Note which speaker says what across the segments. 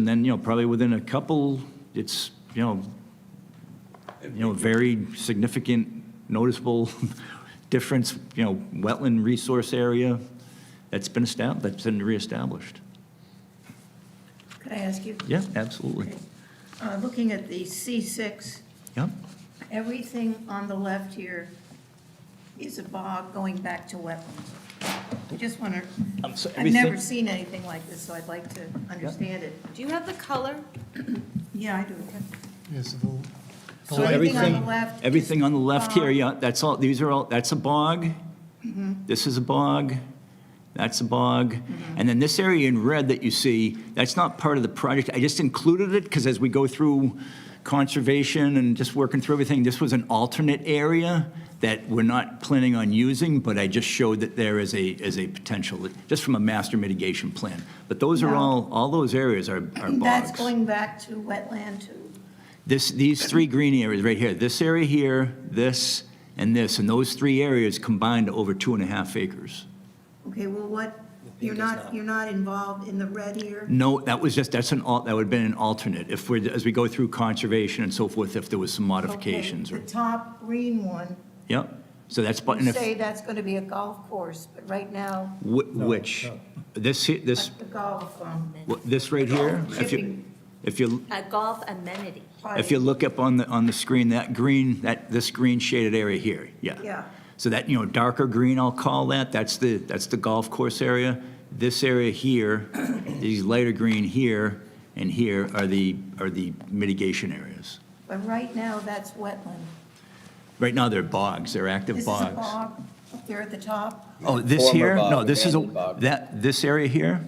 Speaker 1: And then, you know, probably within a couple, it's, you know, you know, very significant noticeable difference, you know, wetland resource area that's been established, that's been reestablished.
Speaker 2: Could I ask you?
Speaker 1: Yeah, absolutely.
Speaker 2: Okay. Uh, Looking at the C6,
Speaker 1: Yep.
Speaker 2: everything on the left here is a bog going back to wetlands. I just want to,
Speaker 3: Um, so
Speaker 2: I've never
Speaker 3: everything-
Speaker 2: seen anything like this, so I'd like to understand it.
Speaker 4: Do you have the color?
Speaker 2: Yeah, I do.
Speaker 5: Yes, the- the
Speaker 2: So everything on the
Speaker 5: light,
Speaker 2: left,
Speaker 1: Everything on the left here, yeah, that's all, these are all, that's a bog.
Speaker 2: Mm-hmm.
Speaker 1: This is a bog, that's a bog.
Speaker 2: Mm-hmm.
Speaker 1: And then this area in red that you see, that's not part of the project. I just included it because as we go through conservation and just working through everything, this was an alternate area that we're not planning on using, but I just showed that there is a, is a potential, just from a master mitigation plan. But those are
Speaker 2: No.
Speaker 1: all, all those areas are are bogs.
Speaker 2: that's going back to wetland too.
Speaker 1: This, these three green areas right here, this area here, this, and this, and those three areas combined to over two and a half acres.
Speaker 2: Okay, well, what, you're
Speaker 3: is
Speaker 2: not,
Speaker 3: not.
Speaker 2: you're not involved in the red here?
Speaker 1: No, that was just, that's an, al- that would have been an alternate, if we're, as we go through conservation and so forth, if there was some
Speaker 2: Okay,
Speaker 1: modifications.
Speaker 2: The
Speaker 1: or
Speaker 2: top green one,
Speaker 1: Yep, so that's, but, and
Speaker 2: you
Speaker 1: if,
Speaker 2: say that's going to be a golf course, but right now,
Speaker 1: whi- which, this, he- this,
Speaker 2: that's the golf, um,
Speaker 1: wh- this right here? If you,
Speaker 2: Shipping.
Speaker 1: if you,
Speaker 4: A golf amenity.
Speaker 1: if you look up on the, on the screen, that green, that, this green shaded area here, yeah.
Speaker 2: Yeah.
Speaker 1: So that, you know, darker green, I'll call that, that's the, that's the golf course area. This area here, these lighter green here and here are the, are the mitigation areas.
Speaker 2: But right now, that's wetland.
Speaker 1: Right now, they're bogs, they're active
Speaker 2: This is a
Speaker 1: bogs.
Speaker 2: bog up there at the top.
Speaker 1: Oh, this
Speaker 3: Former
Speaker 1: here?
Speaker 3: bog,
Speaker 1: No, this is,
Speaker 3: abandoned
Speaker 1: a
Speaker 3: bog.
Speaker 1: that, this area here,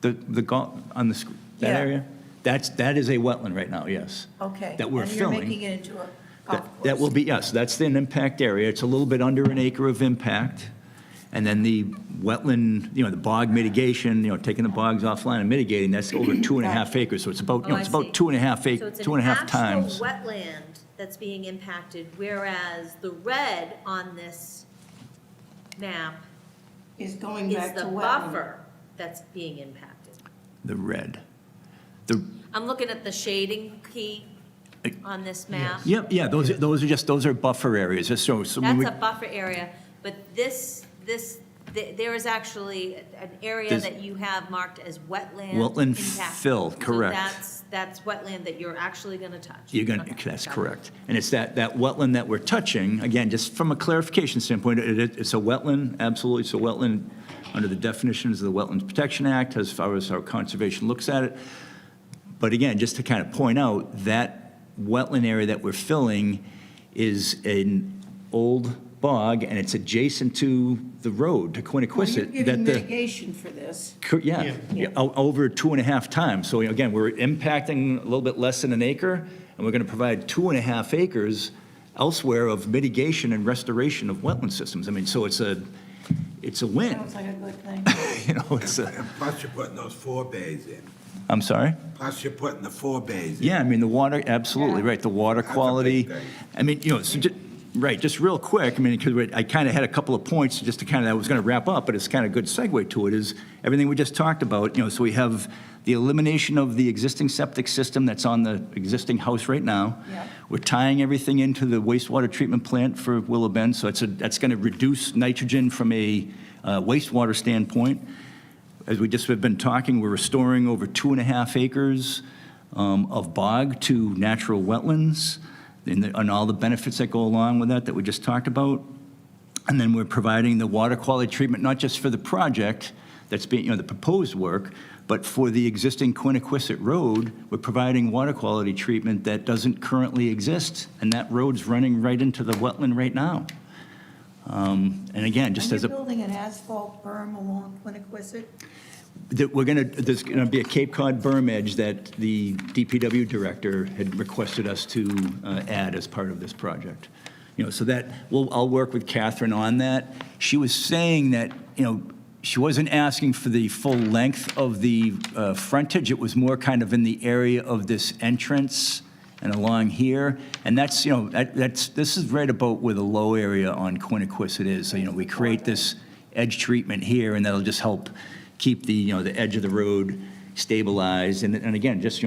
Speaker 1: the, the golf, on the, sc- that
Speaker 2: Yeah.
Speaker 1: area? That's, that is a wetland right now, yes.
Speaker 2: Okay.
Speaker 1: That we're filling.
Speaker 2: And you're making it into a golf
Speaker 1: That
Speaker 2: course.
Speaker 1: that will be, yes, that's an impact area. It's a little bit under an acre of impact. And then the wetland, you know, the bog mitigation, you know, taking the bogs offline and mitigating, that's over two and a half acres. So it's about, you know,
Speaker 4: Oh, I
Speaker 1: it's
Speaker 4: see.
Speaker 1: about two and a half, ac- two and a half times.
Speaker 4: So it's an actual wetland that's being impacted, whereas the red on this map
Speaker 2: Is going
Speaker 4: is
Speaker 2: back to
Speaker 4: the
Speaker 2: wetland.
Speaker 4: buffer that's being impacted.
Speaker 1: The red. The,
Speaker 4: I'm looking at the shading key on this map.
Speaker 1: yeah, yeah, those, are- those are just, those are buffer areas. Just So, so when
Speaker 4: That's
Speaker 1: we,
Speaker 4: a buffer area, but this, this, th- there is actually an area
Speaker 1: This-
Speaker 4: that you have marked as wetland.
Speaker 1: Wetland
Speaker 4: impact.
Speaker 1: fill,
Speaker 4: So
Speaker 1: correct.
Speaker 4: that's, that's wetland that you're actually going to touch.
Speaker 1: you're going,
Speaker 4: Okay,
Speaker 1: to that's
Speaker 4: got it.
Speaker 1: correct. And it's that, that wetland that we're touching, again, just from a clarification standpoint, it, it- it's a wetland, absolutely, it's a wetland under the definitions of the Wetlands Protection Act, as far as our conservation looks at it. But again, just to kind of point out, that wetland area that we're filling is an old bog, and it's adjacent to the road to
Speaker 2: Well, you're
Speaker 1: Quiniquisette.
Speaker 2: giving
Speaker 1: that the-
Speaker 2: mitigation for this.
Speaker 1: Cor- Yeah, Yeah, o- over two and a half times. So again, we're impacting a little bit less than an acre, and we're going to provide two and a half acres elsewhere of mitigation and restoration of wetland systems. I mean, so it's a, it's a win,
Speaker 2: Sounds like a good thing.
Speaker 1: you know, it's a,
Speaker 6: Plus you're putting those four bays in.
Speaker 1: I'm sorry?
Speaker 6: Plus you're putting the four bays in.
Speaker 1: Yeah, I mean, the water, absolutely,
Speaker 2: Yeah.
Speaker 1: right, the water
Speaker 6: That's a big
Speaker 1: quality.
Speaker 6: thing.
Speaker 1: I mean, you know, so ju- right, just real quick, I mean, because I kind of had a couple of points just to kind of, I was going to wrap up, but it's kind of good segue to it, is everything we just talked about, you know, so we have the elimination of the existing septic system that's on the existing house right now.
Speaker 2: Yeah.
Speaker 1: We're tying everything into the wastewater treatment plant for Willow Bend, so it's a, that's going to reduce nitrogen from a uh, wastewater standpoint as we just have been talking, we're restoring over two and a half acres um, of bog to natural wetlands and the- and all the benefits that go along with that that we just talked about. And then we're providing the water quality treatment, not just for the project that's being, you know, the proposed work, but for the existing Quiniquisette Road, we're providing water quality treatment that doesn't currently exist, and that road's running right into the wetland right now. Um, And again, just
Speaker 2: And
Speaker 1: as a.
Speaker 2: you're building an asphalt berm along Quiniquisette?
Speaker 1: that we're going to, there's going to be a Cape Cod berm edge that the DPW director had requested us to uh, add as part of this project. You know, so that, well, I'll work with Catherine on that. She was saying that, you know, she wasn't asking for the full length of the uh, frontage. It was more kind of in the area of this entrance and along here. And that's, you know, that- that's, this is right about where the low area on Quiniquisette is. So, you know, we create this edge treatment here, and that'll just help keep the, you know, the edge of the road stabilized. And, and again, just, you know,